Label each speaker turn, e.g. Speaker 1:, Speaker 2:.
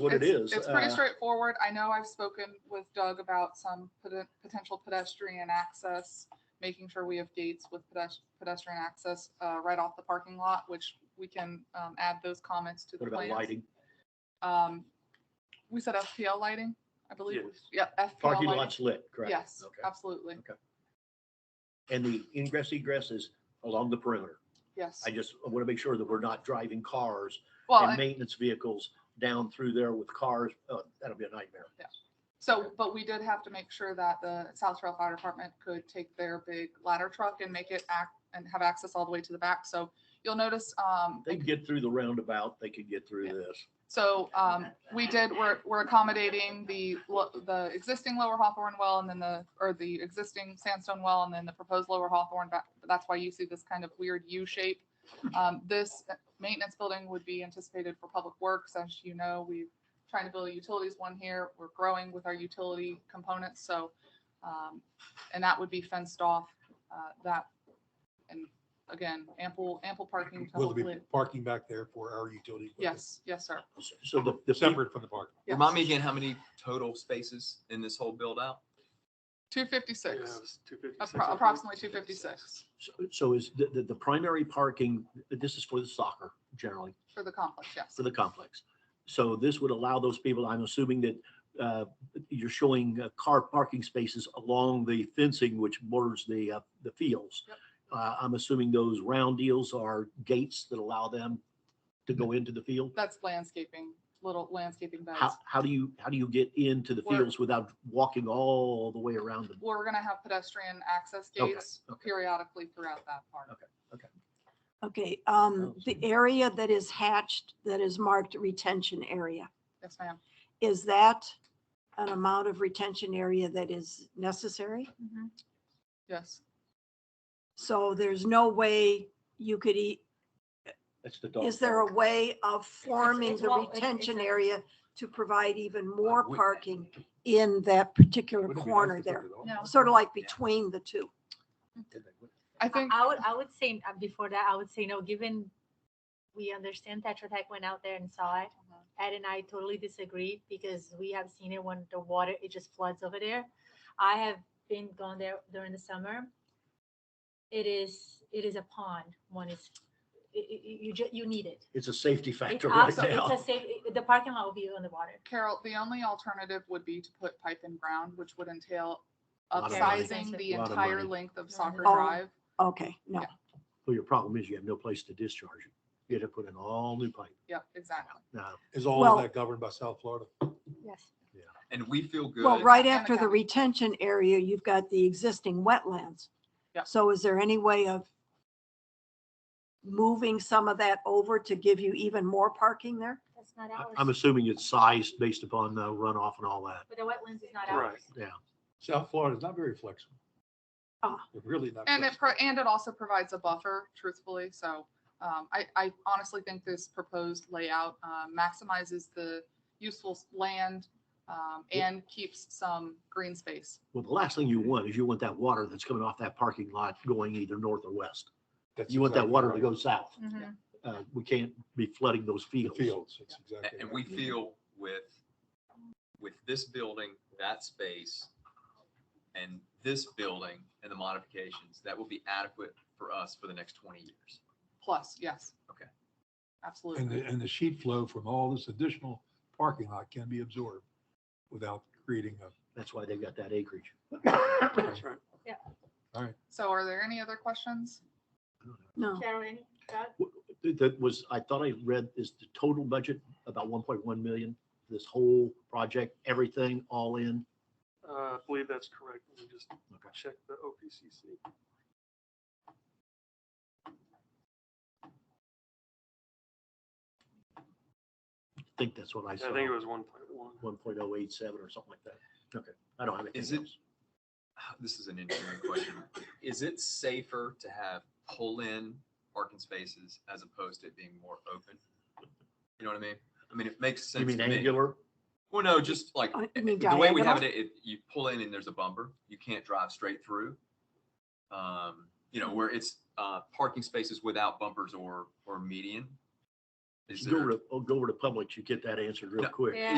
Speaker 1: what it is.
Speaker 2: It's- It's pretty
Speaker 1: Uh,
Speaker 2: straightforward. I know I've spoken with Doug about some poten- potential pedestrian access, making sure we have gates with pedes- pedestrian access uh, right off the parking lot, which we can um, add those comments to the
Speaker 1: What about
Speaker 2: plans.
Speaker 1: lighting?
Speaker 2: Um, We said FPL lighting, I believe. we- Yeah, FPL
Speaker 1: Parking
Speaker 2: lighting.
Speaker 1: lots lit, correct?
Speaker 2: Yes,
Speaker 1: Okay.
Speaker 2: absolutely.
Speaker 1: And the ingress egress is along the perimeter.
Speaker 2: Yes.
Speaker 1: I just want to make sure that we're not driving cars
Speaker 2: Well,
Speaker 1: and
Speaker 2: and-
Speaker 1: maintenance vehicles down through there with cars. Uh, That'll be a nightmare.
Speaker 2: so, but we did have to make sure that the South Trail Fire Department could take their big ladder truck and make it act and have access all the way to the back. So you'll notice, um,
Speaker 1: They can get through the roundabout, they could get through
Speaker 2: Yeah.
Speaker 1: this.
Speaker 2: So um, we did, we're, we're accommodating the, lo- the existing lower Hawthorne well and then the, or the existing sandstone well and then the proposed lower Hawthorne. back- That's why you see this kind of weird U shape. Um, This maintenance building would be anticipated for public works. As you know, we're trying to build a utilities one here. We're growing with our utility components, so, um, and that would be fenced off, uh, that. And again, ample, ample parking. to
Speaker 3: Will there
Speaker 2: hopefully-
Speaker 3: be parking back there for our utility? equipment?
Speaker 2: Yes, yes, sir.
Speaker 1: So the, the.
Speaker 3: Separate from the park.
Speaker 2: Yes.
Speaker 4: Remind me again how many total spaces in this whole build out?
Speaker 2: 256.
Speaker 5: Two fifty-six.
Speaker 2: Appro- Approximately two fifty-six
Speaker 1: so- So is the, the, the primary parking, this is for the soccer generally?
Speaker 2: for the complex, yes.
Speaker 1: for the complex. So this would allow those people, I'm assuming that uh, you're showing uh, car parking spaces along the fencing which borders the, uh, the fields.
Speaker 2: Yep.
Speaker 1: Uh, I'm assuming those round deals are gates that allow them to go into the field?
Speaker 2: That's landscaping, little landscaping
Speaker 1: How,
Speaker 2: beds.
Speaker 1: how do you, how do you get into the
Speaker 2: We're-
Speaker 1: fields without walking all the way around the?
Speaker 2: We're gonna have pedestrian access
Speaker 1: Okay,
Speaker 2: gates
Speaker 1: okay.
Speaker 2: periodically throughout that part.
Speaker 1: Okay.
Speaker 6: Okay,
Speaker 1: Oh,
Speaker 6: um, the area that is hatched, that is marked retention area,
Speaker 2: Yes, ma'am.
Speaker 6: is that an amount of retention area that is necessary?
Speaker 7: Mm-hmm.
Speaker 2: Yes,
Speaker 6: So there's no way you could eat,
Speaker 1: That's the dog.
Speaker 6: is there a way of forming
Speaker 7: it's
Speaker 6: the
Speaker 7: well, it's-
Speaker 6: retention
Speaker 7: it's a-
Speaker 6: area to provide even more
Speaker 3: we-
Speaker 6: parking in that particular
Speaker 3: Wouldn't it be nice
Speaker 6: corner
Speaker 3: to put
Speaker 6: there?
Speaker 3: it all?
Speaker 7: No.
Speaker 6: Sort of like
Speaker 4: Yeah.
Speaker 6: between the two.
Speaker 2: I
Speaker 7: I
Speaker 2: think,
Speaker 7: I would, I would say, uh, before that, I would say no, given we understand Tetra Tech went out there and saw it.
Speaker 2: Mhm.
Speaker 7: Ed and I totally disagree because we have seen it when the water, it just floods over there. I have been gone there during the summer. It is, it is a pond. One is, i- i- i- you, ju- you need it.
Speaker 1: It's a safety
Speaker 7: It's
Speaker 1: factor right
Speaker 7: absolutely,
Speaker 1: now.
Speaker 7: it's a safe, i- the parking lot will be on the water.
Speaker 2: Carol, the only alternative would be to put pipe in ground, which would entail
Speaker 1: Lot of money.
Speaker 2: upsizing the
Speaker 1: Lot of
Speaker 2: entire
Speaker 1: money.
Speaker 2: length of Soccer
Speaker 6: Oh.
Speaker 2: Drive.
Speaker 6: Okay, no.
Speaker 2: Yeah.
Speaker 1: Well, your problem is you have no place to discharge it. You had to put in all new pipe.
Speaker 2: Yep, exactly.
Speaker 1: Now,
Speaker 3: Is all
Speaker 6: Well-
Speaker 3: of that governed by South Florida?
Speaker 7: Yes.
Speaker 4: And we feel good.
Speaker 6: Well,
Speaker 2: Not
Speaker 6: right
Speaker 2: gonna
Speaker 6: after the
Speaker 2: count.
Speaker 6: retention area, you've got the existing wetlands.
Speaker 2: Yep.
Speaker 6: So is there any way of moving some of that over to give you even more parking there?
Speaker 7: That's not
Speaker 1: I-
Speaker 7: ours.
Speaker 1: I'm assuming it's sized based upon uh, runoff and all that.
Speaker 7: But the wetlands is not
Speaker 5: Right.
Speaker 7: ours.
Speaker 3: South Florida is not very flexible.
Speaker 6: Ah.
Speaker 3: They're Really not.
Speaker 2: And it,
Speaker 3: flexible.
Speaker 2: pro- and it also provides a buffer, truthfully, so, um, I, I honestly think this proposed layout, uh, maximizes the useful s- land, um,
Speaker 1: Yeah.
Speaker 2: and keeps some green space.
Speaker 1: Well, the last thing you want is you want that water that's coming off that parking lot going either north or west.
Speaker 3: That's
Speaker 1: You want that
Speaker 3: exactly
Speaker 1: water to
Speaker 3: right.
Speaker 1: go south.
Speaker 2: Mm.
Speaker 7: Mhm.
Speaker 1: Uh, we can't be flooding those
Speaker 3: The
Speaker 1: fields.
Speaker 3: Fields, that's
Speaker 4: A-
Speaker 3: exactly.
Speaker 4: And
Speaker 3: right.
Speaker 4: we feel with, with this building, that space, and this building and the modifications, that will be adequate for us for the next twenty years.
Speaker 2: Plus, yes.
Speaker 4: Okay.
Speaker 2: Absolutely.
Speaker 3: And the, and the sheet flow from all this additional parking lot can be absorbed without creating a,
Speaker 1: That's why they've got that acreage.
Speaker 5: That's right.
Speaker 2: So are there any other questions?
Speaker 6: No.
Speaker 7: Sharon, any thought?
Speaker 1: That was, I thought I read is the total budget about one point one million, this whole project, everything all in.
Speaker 5: Uh, I believe that's correct. Let me just
Speaker 1: Okay.
Speaker 5: check the OPCC.
Speaker 1: I think that's what I
Speaker 5: I
Speaker 1: saw.
Speaker 5: think it was one point one.
Speaker 1: One point oh eight seven or something like that. Okay. I don't have anything
Speaker 4: Is it-
Speaker 1: else.
Speaker 4: This is an engineering question. Is it safer to have pull-in parking spaces as opposed to it being more open? You know what I mean? I mean, it makes sense
Speaker 1: You
Speaker 4: to me.
Speaker 1: mean angular?
Speaker 4: Well, no, just like,
Speaker 6: Oh, you
Speaker 4: eh,
Speaker 6: mean
Speaker 4: the way we have it,
Speaker 6: diagonal?
Speaker 4: it, you pull in and there's a bumper, you can't drive straight through. Um, you know, where it's, uh, parking spaces without bumpers or, or median. Is
Speaker 1: Go
Speaker 4: there-
Speaker 1: over to, oh, go over to Publix, you get that answered real
Speaker 4: No.
Speaker 1: quick.
Speaker 7: Yeah.